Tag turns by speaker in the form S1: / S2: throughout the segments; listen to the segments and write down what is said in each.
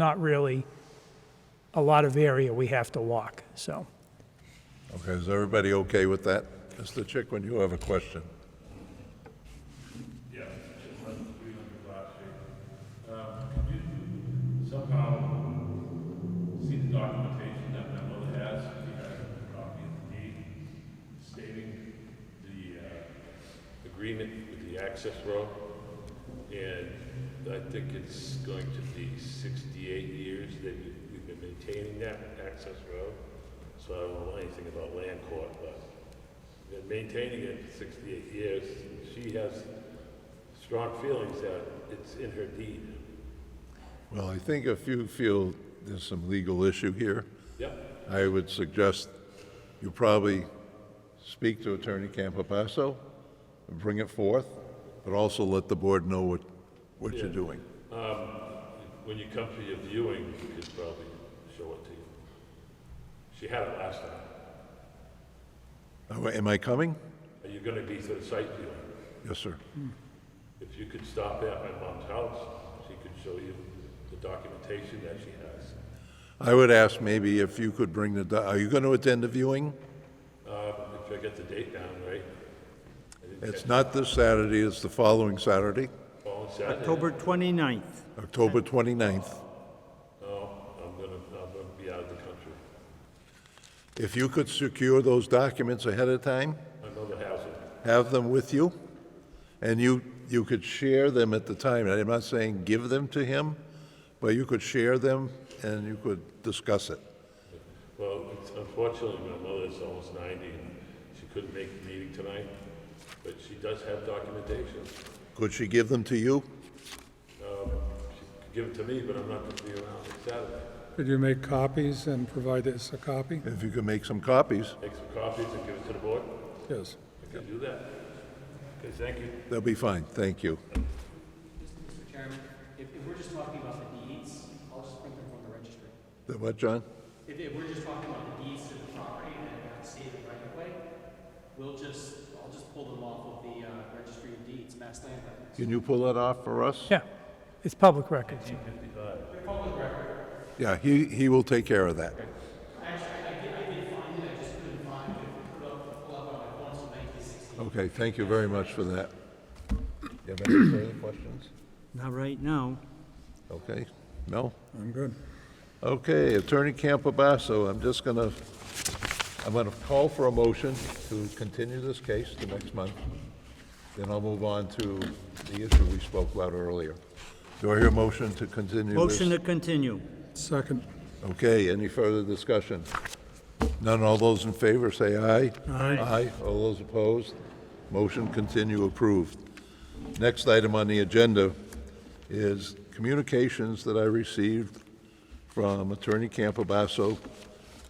S1: not really a lot of area we have to walk, so.
S2: Okay, is everybody okay with that? Mr. Chickwen, you have a question?
S3: Um, somehow see the documentation that my mother has, she had a copy of the deed stating the uh, agreement with the access road. And I think it's going to be 68 years that you- we've been maintaining that access road. So I don't know anything about land court, but been maintaining it for 68 years. She has strong feelings that it's in her deed.
S2: Well, I think if you feel there's some legal issue here,
S3: Yep.
S2: I would suggest you probably speak to Attorney Campapasso and bring it forth, but also let the board know what, what you're doing.
S3: When you come for your viewing, you could probably show it to you. She had it last time.
S2: Am I- Am I coming?
S3: Are you gonna be for the site viewing?
S2: Yes, sir.
S3: If you could stop at my mom's house, she could show you the documentation that she has.
S2: I would ask maybe if you could bring the, do- are you going to attend the viewing?
S3: Uh, if I get the date down right,
S2: It's not this Saturday, it's the following Saturday,
S3: fall and Saturday.
S4: October 29th.
S2: October 29th.
S3: No, I'm gonna, I'm gonna be out of the country.
S2: If you could secure those documents ahead of time,
S3: My mother has it.
S2: have them with you, and you, you could share them at the time. And I'm not saying give them to him, but you could share them and you could discuss it.
S3: Well, it's- unfortunately, my mother's almost 90 and she couldn't make the meeting tonight, but she does have documentation.
S2: Could she give them to you?
S3: She could give it to me, but I'm not gonna be around on Saturday.
S5: Could you make copies and provide us a copy?
S2: If you could make some copies,
S3: Make some copies and give it to the board?
S5: Yes.
S3: I can do that. Okay, thank you.
S2: that'll be fine, thank you.
S6: Mr. Chairman, if, if we're just talking about the deeds, I'll just print them from the registry.
S2: The What, John?
S6: If, if we're just talking about the deeds to the property and not state it right away, we'll just, I'll just pull them off of the, uh, registry of deeds, mass land records.
S2: Can you pull that off for us?
S1: Yeah, it's public records.
S2: Yeah, he, he will take care of that. Okay, thank you very much for that. You have any further questions?
S4: Not right now.
S2: Okay, no?
S5: I'm good.
S2: Okay, Attorney Campabasso, I'm just gonna, I'm gonna call for a motion to continue this case to next month. Then I'll move on to the issue we spoke about earlier. Do I hear a motion to continue this?
S4: Motion to continue.
S5: Second.
S2: Okay, any further discussion? None, all those in favor say aye. Aye. Aye, all those opposed? Motion continue approved. Next item on the agenda is communications that I received from Attorney Campobasso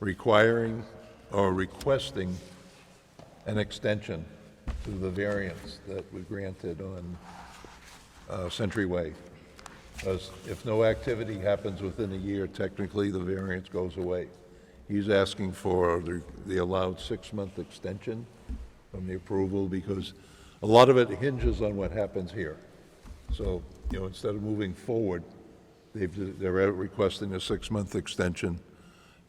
S2: requiring or requesting an extension to the variance that we granted on uh, Century Way. Because if no activity happens within a year, technically, the variance goes away. He's asking for the- the allowed six-month extension from the approval, because a lot of it hinges on what happens here. So, you know, instead of moving forward, they've, they're requesting a six-month extension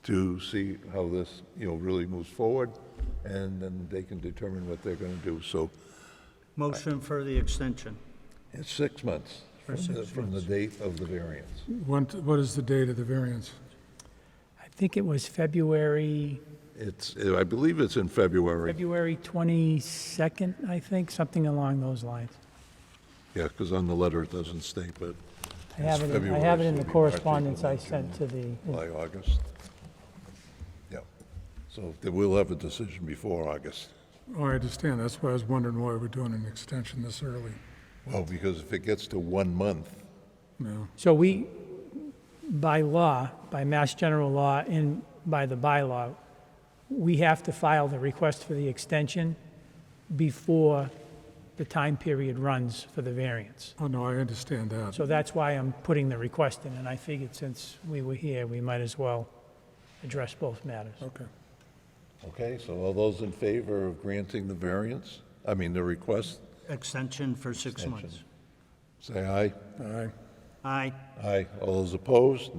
S2: to see how this, you know, really moves forward, and then they can determine what they're gonna do. So
S4: Motion for the extension.
S2: it's six months from the, from the date of the variance.
S5: What, what is the date of the variance?
S1: I think it was February,
S2: It's, I believe it's in February.
S1: February 22nd, I think, something along those lines.
S2: Yeah, because on the letter it doesn't state, but
S1: I have it, in- I
S2: February,
S1: have it
S2: so
S1: in the
S2: it'll be
S1: correspondence I
S2: March,
S1: sent to the,
S2: by August. Yeah, so they will have a decision before August.
S5: Oh, I understand. That's why I was wondering why we're doing an extension this early.
S2: Well, because if it gets to one month,
S5: No.
S1: so we, by law, by Mass General Law and by the bylaw, we have to file the request for the extension before the time period runs for the variance.
S5: Oh, no, I understand that.
S1: So that's why I'm putting the request in, and I figured since we were here, we might as well address both matters.
S5: Okay.
S2: okay, so all those in favor of granting the variance, I mean, the request,
S4: Extension for six months.
S2: say aye.
S5: Aye.
S4: Aye.
S2: Aye. All those opposed?